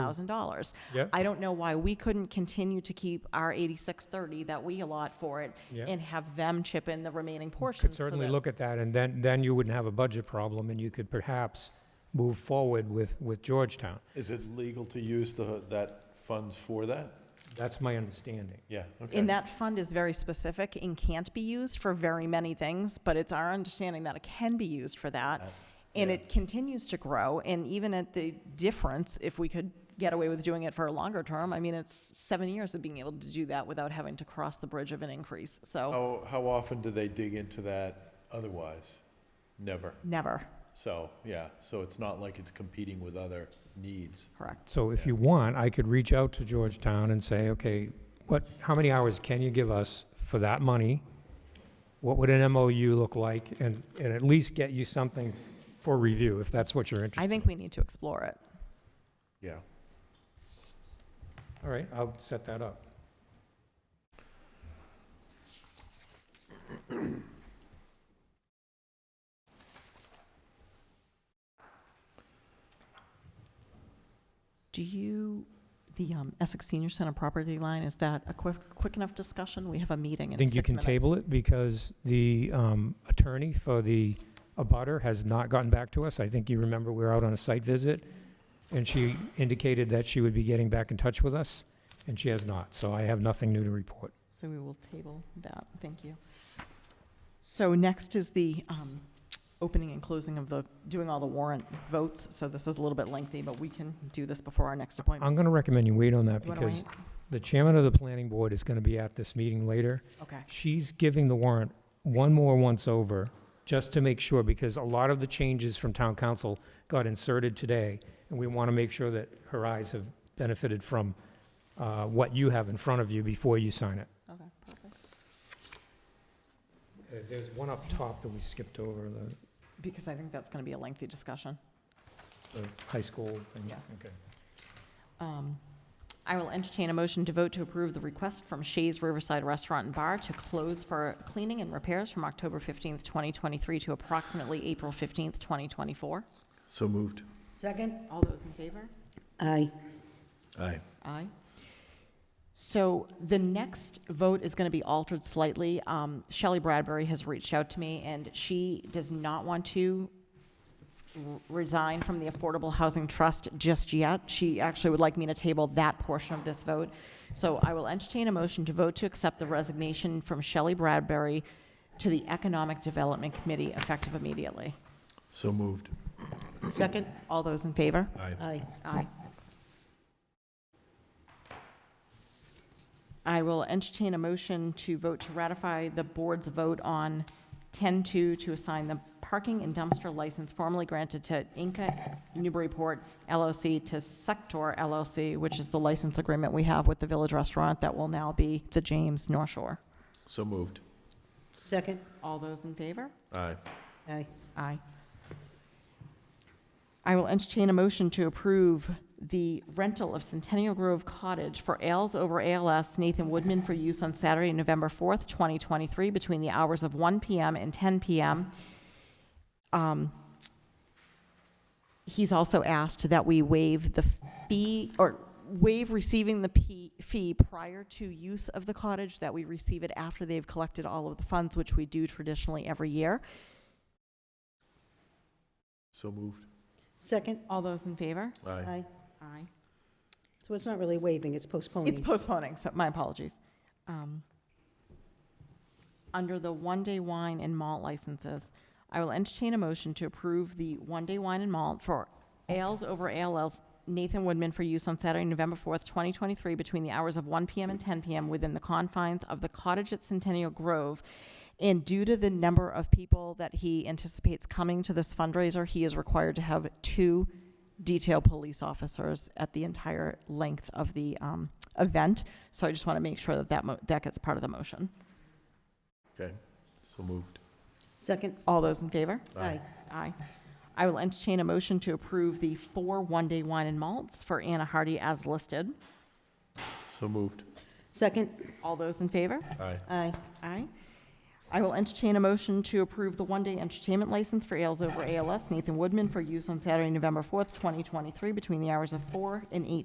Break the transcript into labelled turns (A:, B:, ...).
A: Mm.
B: thousand dollars.
A: Yeah.
B: I don't know why we couldn't continue to keep our eighty-six thirty that we allot for it
A: Yeah.
B: and have them chip in the remaining portions.
A: Could
B: so
A: certainly
B: that-
A: look at that, and then, then you wouldn't have a budget problem, and you could perhaps move forward with, with Georgetown.
C: Is it legal to use the, that funds for that?
A: That's my understanding.
C: Yeah, okay.
B: And that fund is very specific and can't be used for very many things, but it's our understanding that it can be used for that. And
C: yeah.
B: it continues to grow, and even at the difference, if we could get away with doing it for a longer term, I mean, it's seven years of being able to do that without having to cross the bridge of an increase,
A: Oh.
B: so,
C: How, how often do they dig into that otherwise? Never.
B: never,
C: So, yeah, so it's not like it's competing with other needs.
B: correct.
A: So if you want, I could reach out to Georgetown and say, okay, what, how many hours can you give us for that money? What would an MOU look like? And, and at least get you something for review, if that's what you're interested
B: I
A: in.
B: think we need to explore it.
C: Yeah.
A: All right, I'll set that up.
B: Do you, the um, Essex Senior Center property line, is that a quick, quick enough discussion? We have a meeting
A: I
B: in
A: think
B: six
A: you
B: minutes.
A: can table it because the um, attorney for the abutter has not gotten back to us. I think you remember we were out on a site visit, and she indicated that she would be getting back in touch with us, and she has not. So I have nothing new to report.
B: So we will table that, thank you. So next is the um, opening and closing of the, doing all the warrant votes. So this is a little bit lengthy, but we can do this before our next appointment.
A: I'm going to recommend you wait on that
B: You wanna
A: because
B: wait?
A: the chairman of the planning board is going to be at this meeting later.
B: Okay,
A: She's giving the warrant one more once over, just to make sure, because a lot of the changes from town council got inserted today, and we want to make sure that her eyes have benefited from uh, what you have in front of you before you sign it.
B: okay, perfect.
A: Uh, There's one up top that we skipped over, the,
B: Because I think that's going to be a lengthy discussion.
A: the high school thing.
B: Yes. Um, I will entertain a motion to vote to approve the request from Shays Riverside Restaurant and Bar to close for cleaning and repairs from October 15th, 2023 to approximately April 15th, 2024.
C: So moved.
D: Second?
B: All those in favor?
D: Aye.
C: Aye.
B: Aye. So the next vote is going to be altered slightly. Um, Shelley Bradbury has reached out to me, and she does not want to r- resign from the Affordable Housing Trust just yet. She actually would like me to table that portion of this vote. So I will entertain a motion to vote to accept the resignation from Shelley Bradbury to the Economic Development Committee effective immediately.
C: So moved.
D: Second?
B: All those in favor?
C: Aye.
D: Aye.
B: Aye. I will entertain a motion to vote to ratify the board's vote on 10-2 to assign the parking and dumpster license formerly granted to Inca Newburyport LLC to Sector LLC, which is the license agreement we have with the Village Restaurant that will now be the James North Shore.
C: So moved.
D: Second?
B: All those in favor?
C: Aye.
D: Aye.
B: Aye. I will entertain a motion to approve the rental of Centennial Grove Cottage for Ales over ALS Nathan Woodman for use on Saturday, November 4th, 2023, between the hours of 1 PM and 10 PM. Um, He's also asked that we waive the fee, or waive receiving the P- fee prior to use of the cottage, that we receive it after they've collected all of the funds, which we do traditionally every year.
C: So moved.
D: Second?
B: All those in favor?
C: Aye.
B: Aye.
D: So it's not really waiving, it's postponing.
B: It's postponing, so my apologies. Um, Under the one-day wine and malt licenses, I will entertain a motion to approve the one-day wine and malt for Ales over ALL's Nathan Woodman for use on Saturday, November 4th, 2023, between the hours of 1 PM and 10 PM within the confines of the cottage at Centennial Grove. And due to the number of people that he anticipates coming to this fundraiser, he is required to have two detail police officers at the entire length of the um, event. So I just want to make sure that that, mo- that gets part of the motion.
C: Okay, so moved.
D: Second?
B: All those in favor?
C: Aye.
B: Aye. I will entertain a motion to approve the four one-day wine and malts for Anna Hardy as listed.
C: So moved.
D: Second?
B: All those in favor?
C: Aye.
D: Aye.
B: Aye. I will entertain a motion to approve the one-day entertainment license for Ales Over ALS Nathan Woodman for use on Saturday, November 4th, 2023, between the hours of 4 and 8